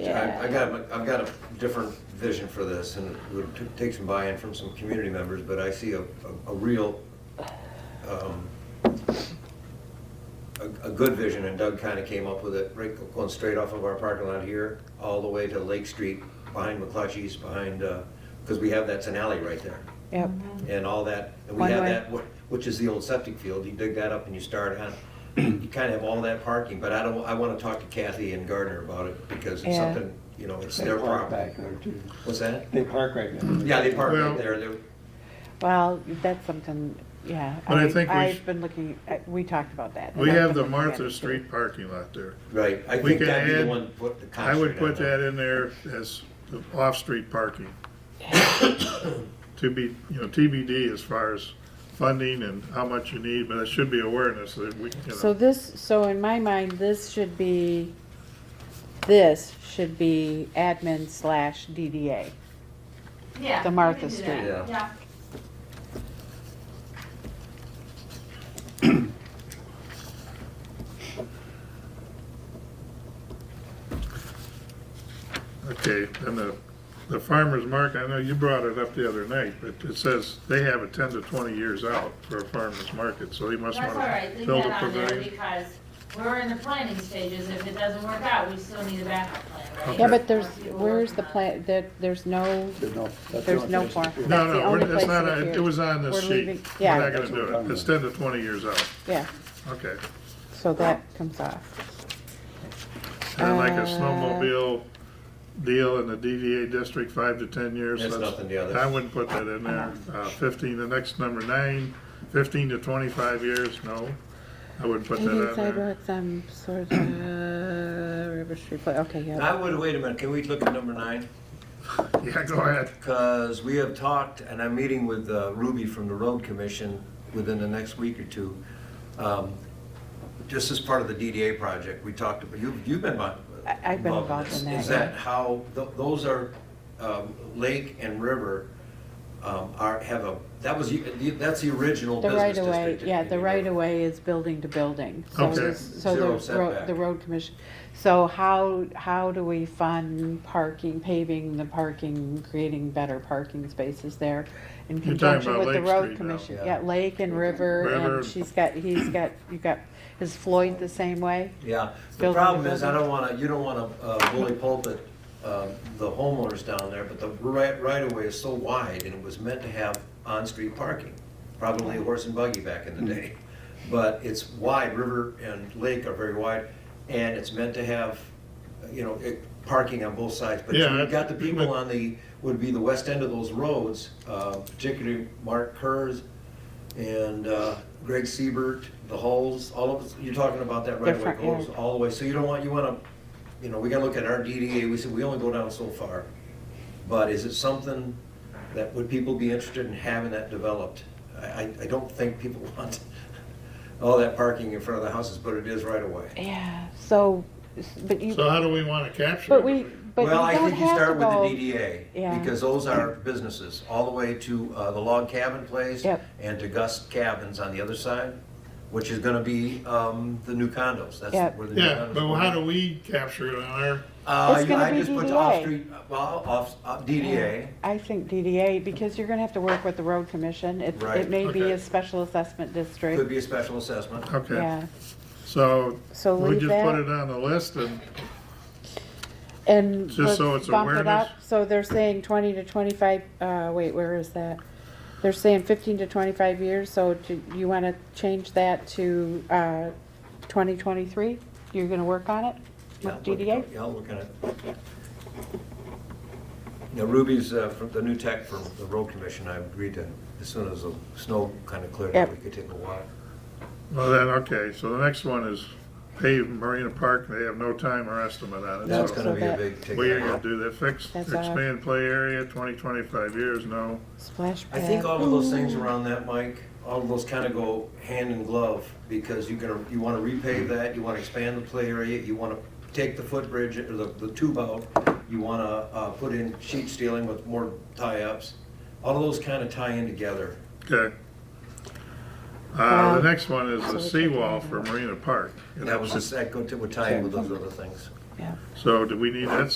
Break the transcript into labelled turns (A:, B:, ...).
A: I, I
B: Yeah.
A: got, a- I've got a different vision for this, and it would t- take some buy-in from some community members, but I see a, a- a real, um, a, a good vision, and Doug kinda came up with it, right, going straight off of our parking lot here, all the way to Lake Street, behind McClutchy's, behind, uh 'cause cause we have, that's an alley right there.
C: Yep.
A: and all that, and we
C: One
A: have
C: way.
A: that, wh- which is the old septic field, you dig that up and you start on, you kind of have all that parking, but I don't, I want to talk to Kathy and Gardner about it, because it's
C: Yeah.
A: something, you know, it's
D: They
A: their
D: park Back
A: problem.
D: there too.
A: What's that?
D: They park right there.
A: Yeah, they park
E: Well-
A: right there, they're,
C: Well, that's something, yeah.
E: But I think we sh-
C: I've been looking, at- we talked about that.
E: We
C: and I've
E: have
C: been
E: the
C: looking at it,
E: Martha
C: too.
E: Street parking lot there.
A: right, I
E: We
A: think
E: can
A: that'd be the
E: add-
A: one, put the
E: I
A: concentrate
E: would
A: on
E: put that in there as the off-street parking. To be, you know, TBD as far as funding and how much you need, but it should be awareness that we, you
C: So
E: know,
C: this, so in my mind, this should be, this should be admin slash DDA.
B: Yeah.
C: The
B: we
C: Martha
B: can do
C: Street.
B: that.
A: Yeah.
B: Yeah.
E: okay, and the, the farmer's market, I know you brought it up the other night, but it says they have it ten to twenty years out for a farmer's market, so they must
B: That's all
E: wanna
B: right, leave
E: build a
B: that on there
E: pavilion.
B: because we're in the planning stages. If it doesn't work out, we still need a backup plan, right?
C: Yeah,
E: Okay.
C: but there's,
B: Or people
C: where's
B: working
C: the
B: on it.
C: plan, there, there's no,
D: There's no- that's the
C: There's
D: only
C: no
D: place to
C: farm.
D: do it.
C: That's
E: No,
C: the
E: no,
C: only
E: we're- it's
C: place
E: not,
C: it
E: on- it
C: appears.
E: was on this
C: We're leaving-
E: sheet.
C: yeah.
E: We're not gonna do it. It's ten to twenty years out,
C: yeah,
E: okay.
C: so that comes off.
E: And then like a
C: Uh,
E: snowmobile deal in the DDA district, five to ten years.
A: That's nothing to others.
E: I wouldn't put that in there.
C: Uh-huh.
E: Uh, fifteen, the next number nine, fifteen to twenty-five years, no. I wouldn't put that
C: Paving
E: on there.
C: sidewalks on sort of, uh, River Street, Pla- okay,
A: that.
C: yeah.
A: I would, wait a minute, can we look at number nine?
E: Yeah, go ahead.
A: Because we have talked, and I'm meeting with uh, Ruby from the Road Commission within the next week or two. Um, Just as part of the DDA project, we talked, about you've, you've been involved.
C: I- I've been
A: this.
C: involved in that,
A: Is
C: yeah.
A: that how, th- those are, um, Lake and River um, are, have a, that was, the- that's the original
C: The
A: business
C: right
A: district.
C: of way, yeah,
A: in
C: the
A: New
C: right
A: York.
C: of way is building to building. So
E: Okay.
C: this- So
A: Zero
C: the road,
A: setback.
C: the road commission, so how, how do we fund parking, paving the parking, creating better parking spaces there? In
E: talking
C: conjunction
E: about
C: with the
E: Lake
C: road
E: Street now.
C: commission,
A: Yeah.
C: yeah, Lake and River,
E: River.
C: and she's got, he's got, you got, is Floyd the same way?
A: Yeah, the
C: Building to
A: problem is, I
C: building.
A: don't wanna, you don't wanna uh, bully pulpit um, the homeowners down there, but the right, right of way is so wide, and it was meant to have on-street parking, probably a horse and buggy back in the day. But it's wide, river and lake are very wide, and it's meant to have, you know, it, parking on both sides. But
E: Yeah,
A: you've got the
E: I-
A: people on the, would be the west end of those roads, uh, particularly Mark Kerr's and uh, Greg Siebert, the Hulls, all of, us- you're talking about that right away
C: Different, yeah.
A: goes all the way, so you don't want, you wanna, you know, we gotta look at our DDA, we said, we only go down so far. But is it something that, would people be interested in having that developed? I, I I don't think people want all that parking in front of the houses, but it is right away.
C: Yeah, so, but you,
E: So how do we wanna capture it?
C: but we, but you
A: Well, I
C: don't
A: think you
C: have to
A: start with
C: go.
A: the DDA,
C: Yeah.
A: because those are businesses, all the way to uh, the log cabin place
C: Yep.
A: and to Gus Cabins on the other side, which is gonna be um, the new condos, that's
C: Yep.
A: where the new condos.
E: Yeah, but how do we capture it on our,
A: Uh,
C: It's gonna
A: I
C: be
A: just put
C: DDA.
A: off-street, well, off, uh, DDA,
C: I think DDA, because you're gonna have to work with the road commission. It,
A: Right.
C: it may be
E: Okay.
C: a special assessment
A: could
C: district.
A: be a special assessment.
E: okay,
C: Yeah,
E: so
C: So
E: we
C: leave
E: just
C: that.
E: put it on the list and,
C: and
E: Just
C: let's
E: so it's
C: bump it
E: awareness.
C: up. So they're saying twenty to twenty-five, uh, wait, where is that? They're saying fifteen to twenty-five years, so do you wanna change that to, uh, twenty twenty-three? You're gonna work on it
A: Yeah,
C: with
A: I'll look-
C: DDA?
A: Yeah, I'll look at it. Now Ruby's, uh, from the new tech from the road commission, I agreed to, as soon as the snow kinda cleared up,
C: Yep.
A: we could take a walk.
E: well then, okay, so the next one is pave Marina Park, they have no time or estimate on it.
A: That's
E: so-
A: gonna
C: So
A: be a
C: that-
A: big ticket.
E: We are gonna do that, fix,
C: That's all.
E: expand play area, twenty, twenty-five years, no.
C: Splash
A: I
C: pad.
A: think all of those things around that, Mike, all of those kind of go hand in glove, because you're gonna, you wanna repave that, you wanna expand the play area, you wanna take the footbridge, or the, the tube out, you wanna, uh, put in sheet steeling with more tie-ups. All of those kind of tie in together.
E: Okay. Uh,
C: Um,
E: the next one is the
C: so we can
E: seawall for Marina Park.
A: That was, that go to, would tie in with those other things.
C: Yeah.
E: So do we need that